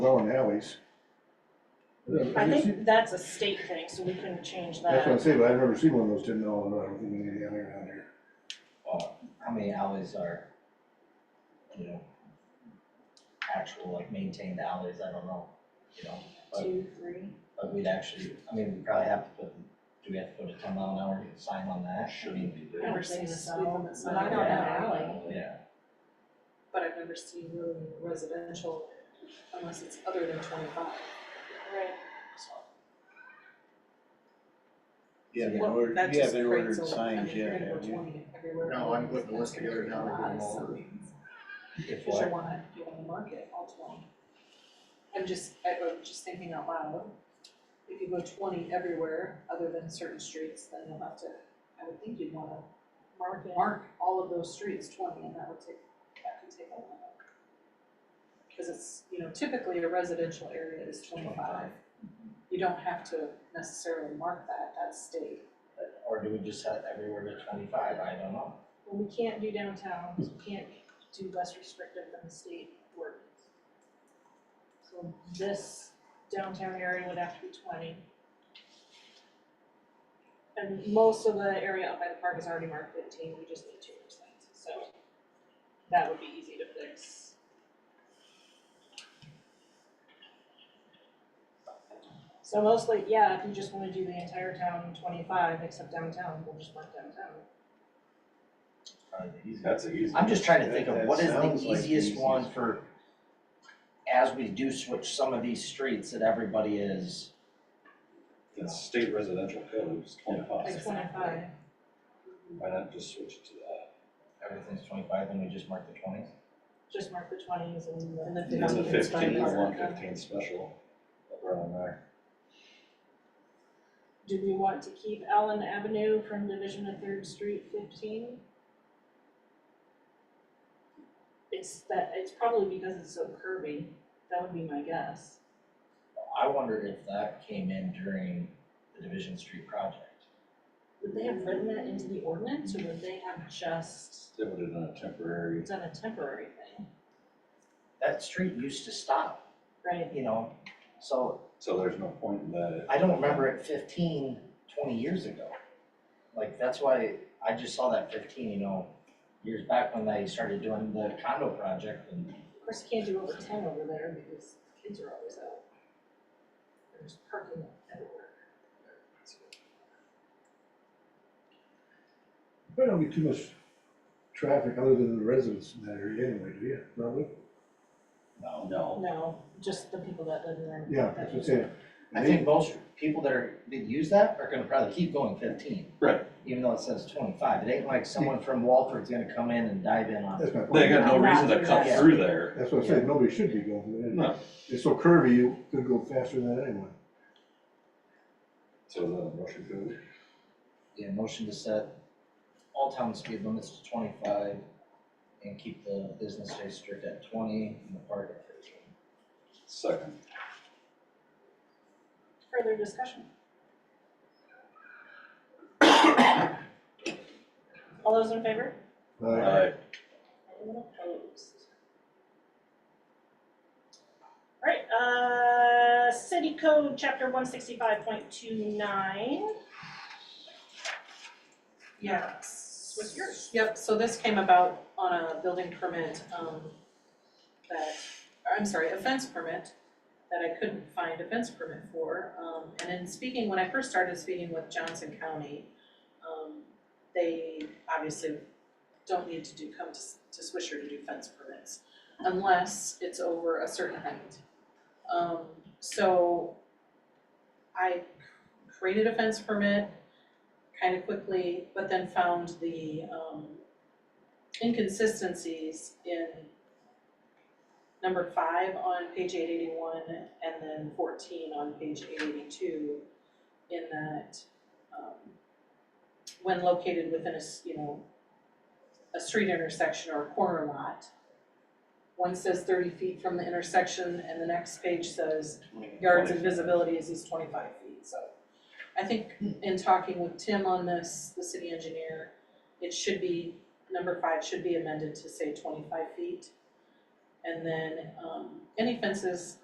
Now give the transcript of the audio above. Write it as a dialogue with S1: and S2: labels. S1: well in alleys. I've
S2: I
S1: never seen-
S2: think uh, that's a state thing, so we couldn't change
S1: That's what I'm
S2: that.
S1: saying, but I've never seen one of those didn't know, and I don't think we need any down here, down here.
S3: Well, how many alleys are, you know, actual, like maintained alleys, I don't know, you know? But,
S2: Two, three,
S3: but we'd actually, I mean, we probably have to put, do we have to put a ten mile an hour sign on that? Shouldn't be
S2: I've never seen this
S4: Well,
S2: out.
S4: it's not out in an alley,
S3: Yeah,
S4: but I've never seen really residential unless it's other than twenty-five.
S2: Right,
S3: so,
S5: Yeah,
S3: So,
S5: you
S4: Well,
S5: ordered,
S4: that
S5: you
S4: just
S5: haven't ordered
S4: creates a- I
S5: signs
S4: mean,
S5: yet,
S4: creating
S5: have
S4: a
S5: you?
S4: 20 everywhere.
S5: No, I'm putting the list together now, we're doing
S4: That's
S5: all of
S4: gonna
S5: it.
S4: create a lot of signs.
S3: if
S4: Cause you
S3: what,
S4: wanna, you wanna market all twenty. I'm just, I, I'm just thinking out loud, if you go twenty everywhere other than certain streets, then you'll have to, I would think you'd wanna
S2: mark it.
S4: mark all of those streets twenty, and that would take, that could take a while. Cause it's, you know, typically a residential area is
S3: 25.
S4: twenty-five. You don't have to necessarily mark that, that's state.
S3: or do we just have everywhere to twenty-five, I don't know.
S2: Well, we can't do downtown, we can't do less restrictive than the state ordinance. So this downtown area would have to be twenty. And most of the area up by the park is already marked fifteen, we just need two more signs, so that would be easy to fix. So mostly, yeah, if you just wanna do the entire town twenty-five except downtown, we'll just mark downtown.
S3: Probably the easiest.
S5: That's easy.
S3: I'm just trying to think of
S5: That-
S3: what
S5: that
S3: is the
S5: sounds like the
S3: easiest one
S5: easiest.
S3: for, as we do switch some of these streets that everybody is, you know,
S6: It's state residential code, it's
S2: Like
S6: twenty-five,
S2: twenty-five,
S6: why not just switch it to that?
S3: everything's twenty-five, then we just mark the twenties?
S2: just mark the twenties and the.
S4: And the
S6: And the
S4: 15 is
S6: fifteen, I
S4: fine.
S6: want fifteen special, uh, that we're on there.
S2: Do we want to keep Allen Avenue from Division of Third Street fifteen? It's that, it's probably because it's so curvy, that would be my guess.
S3: I wondered if that came in during the Division Street project.
S2: Would they have written that into the ordinance, or would they have just,
S6: They would have done a temporary,
S2: it's on a temporary thing,
S3: That street used to stop,
S2: right?
S3: you know, so
S6: so there's no point in that.
S3: I don't remember it 15, 20 years ago. Like, that's why I just saw that fifteen, you know, years back when they started doing the condo project and
S2: Of course, you can't do over ten over there because kids are always out. There's parking everywhere.
S1: Probably don't get too much traffic other than the residents in that area anyway, do you, probably?
S6: No, no.
S2: No, just the people that live in there.
S1: Yeah, that's what I'm saying.
S3: I think most people that are, that use that are gonna probably keep going fifteen.
S6: Right.
S3: Even though it says twenty-five, it ain't like someone from Walford's gonna come in and dive in on
S1: That's
S3: it.
S1: my point.
S6: They got no reason to cut through there,
S1: That's what I'm saying, nobody should be going there.
S6: no,
S1: It's so curvy, you could go faster than that anyway.
S6: so the motion goes.
S3: Yeah, motion to set all town speed limits to twenty-five and keep the business district at twenty and the park at fifteen.
S6: second,
S2: Further discussion? All those in favor?
S1: Uh,
S6: alright,
S2: Anyone opposed? Alright, uh, city code chapter one sixty-five point two nine.
S4: Yes.
S2: What's yours?
S4: Yep, so this came about on a building permit, um, that, or I'm sorry, a fence permit that I couldn't find a fence permit for, um, and in speaking, when I first started speaking with Johnson County, um, they obviously don't need to do, come to, S- to Swisher to do fence permits unless it's over a certain height. Um, so I created a fence permit, kind of quickly, but then found the um inconsistencies in number five on page eight eighty-one and then fourteen on page eight eighty-two in that um when located within a, s- you know, a street intersection or a corner lot, one says thirty feet from the intersection and the next page says yards and visibility is these twenty-five feet, so. I think in talking with Tim on this, the city engineer, it should be, number five should be amended to say twenty-five feet. And then, um, any fences